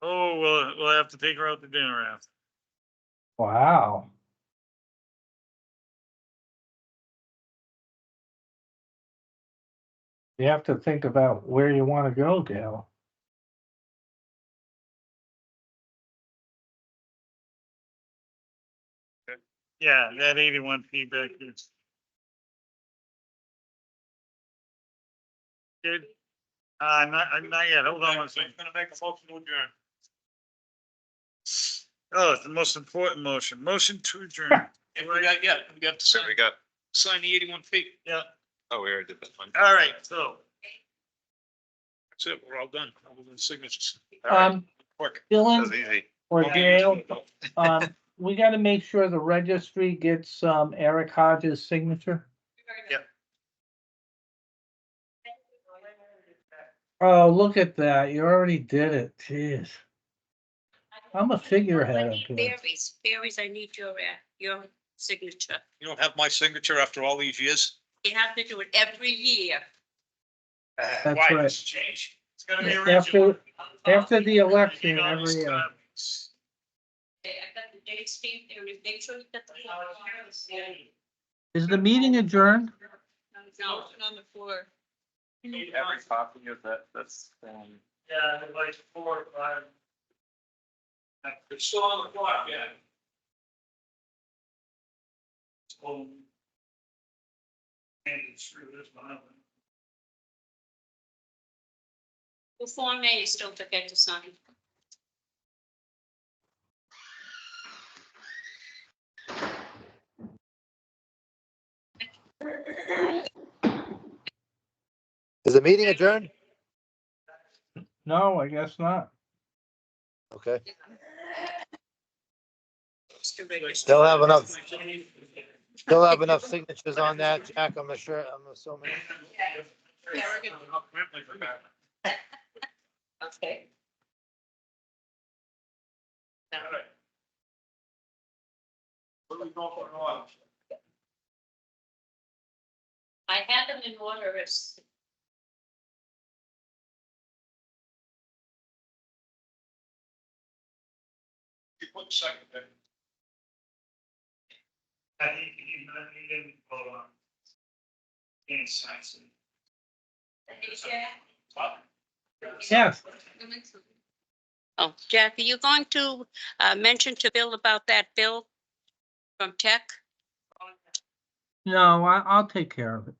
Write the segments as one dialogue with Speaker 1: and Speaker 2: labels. Speaker 1: Oh, we'll, we'll have to take her out to dinner after.
Speaker 2: Wow. You have to think about where you want to go, Gail.
Speaker 1: Yeah, that eighty-one feedback is. Good. Uh, not, uh, not yet. Hold on one second. Gonna make a motion to adjourn. Oh, it's the most important motion. Motion to adjourn.
Speaker 3: And we got, yeah, we got to
Speaker 4: So
Speaker 3: sign,
Speaker 4: we got,
Speaker 3: sign the eighty-one feet.
Speaker 1: Yeah,
Speaker 4: oh, we already did that one.
Speaker 1: all right, so.
Speaker 3: That's it. We're all done. All the signatures.
Speaker 2: Um,
Speaker 3: Quick.
Speaker 4: That was
Speaker 2: Dylan
Speaker 4: easy.
Speaker 2: or Gail, um, we gotta make sure the registry gets, um, Eric Hodges' signature.
Speaker 1: Yep.
Speaker 2: Oh, look at that. You already did it. Jeez. I'm a figurehead up here.
Speaker 5: Berries, berries, I need your, uh, your signature.
Speaker 3: You don't have my signature after all these years?
Speaker 5: You have to do it every year.
Speaker 2: That's
Speaker 3: Why
Speaker 2: right.
Speaker 3: this Change.
Speaker 1: It's gonna be original.
Speaker 2: After, after the election every uh, year.
Speaker 5: Okay, I got the dates, Steve, there is, make sure you get the.
Speaker 2: Is the meeting adjourned?
Speaker 5: No, it's on the floor.
Speaker 6: Need every copy of that, that's, um.
Speaker 1: Yeah, like four, or five.
Speaker 3: It's still on the clock, yeah.
Speaker 1: Oh. And it's true, there's one of them.
Speaker 5: The Form A, you still forget to sign.
Speaker 7: Is the meeting adjourned?
Speaker 2: No, I guess not.
Speaker 7: Okay,
Speaker 5: Mr. Riggers.
Speaker 7: they'll have enough, they'll have enough signatures on that, Jack, I'm sure, I'm assuming.
Speaker 5: Yeah, we're good. Okay. I had them in order as.
Speaker 3: You put second there.
Speaker 1: I think he didn't, he didn't vote on. Any signs.
Speaker 2: Yes.
Speaker 5: Oh, Jack, are you going to uh, mention to Bill about that bill from tech?
Speaker 2: No, I, I'll take care of it.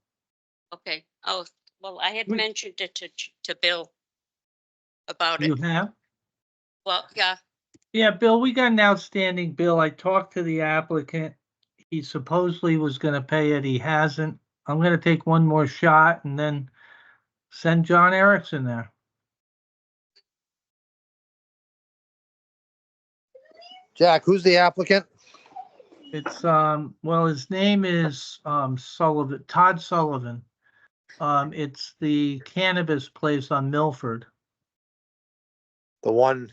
Speaker 5: Okay, oh, well, I had
Speaker 2: We-
Speaker 5: mentioned it to, to Bill about
Speaker 2: You
Speaker 5: it.
Speaker 2: have?
Speaker 5: Well, yeah,
Speaker 2: Yeah, Bill, we got an outstanding bill. I talked to the applicant. He supposedly was gonna pay it. He hasn't. I'm gonna take one more shot and then send John Erickson there.
Speaker 7: Jack, who's the applicant?
Speaker 2: It's, um, well, his name is, um, Sullivan, Todd Sullivan. Um, it's the cannabis place on Milford.
Speaker 7: The one,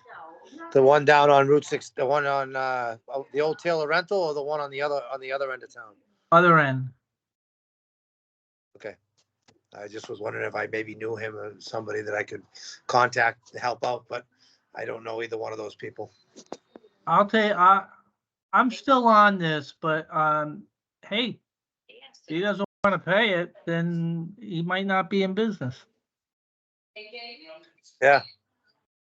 Speaker 7: the one down on Route six, the one on, uh, the old Taylor rental or the one on the other, on the other end of town?
Speaker 2: Other end.
Speaker 7: I just was wondering if I maybe knew him or somebody that I could contact to help out, but I don't know either one of those people.
Speaker 2: I'll tell you, I, I'm still on this, but, um, hey,
Speaker 5: yes.
Speaker 2: if he doesn't wanna pay it, then he might not be in business.
Speaker 5: They gave you-
Speaker 7: Yeah.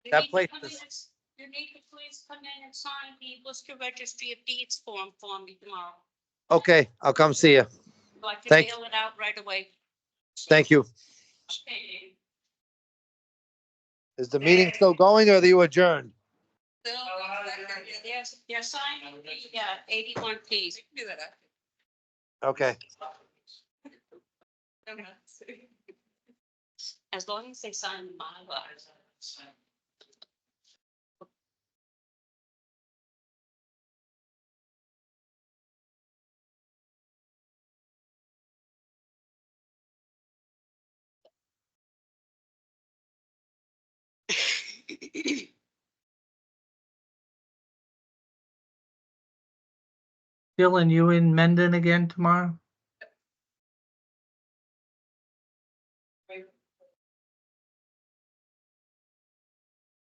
Speaker 5: You
Speaker 7: That
Speaker 5: need to
Speaker 7: place
Speaker 5: come
Speaker 7: is-
Speaker 5: in and- You need to please come in and sign the Worcester Registry of Deeds form for me tomorrow.
Speaker 7: Okay, I'll come see you.
Speaker 5: So I can
Speaker 7: Thank-
Speaker 5: mail it out right away.
Speaker 7: Thank you.
Speaker 5: Okay.
Speaker 7: Is the meeting still going or are you adjourned?
Speaker 5: Yes, you're signing the uh, eighty-one Ps.
Speaker 7: Okay.
Speaker 5: As long as they sign my laws.
Speaker 2: Dylan, you in Mendon again tomorrow?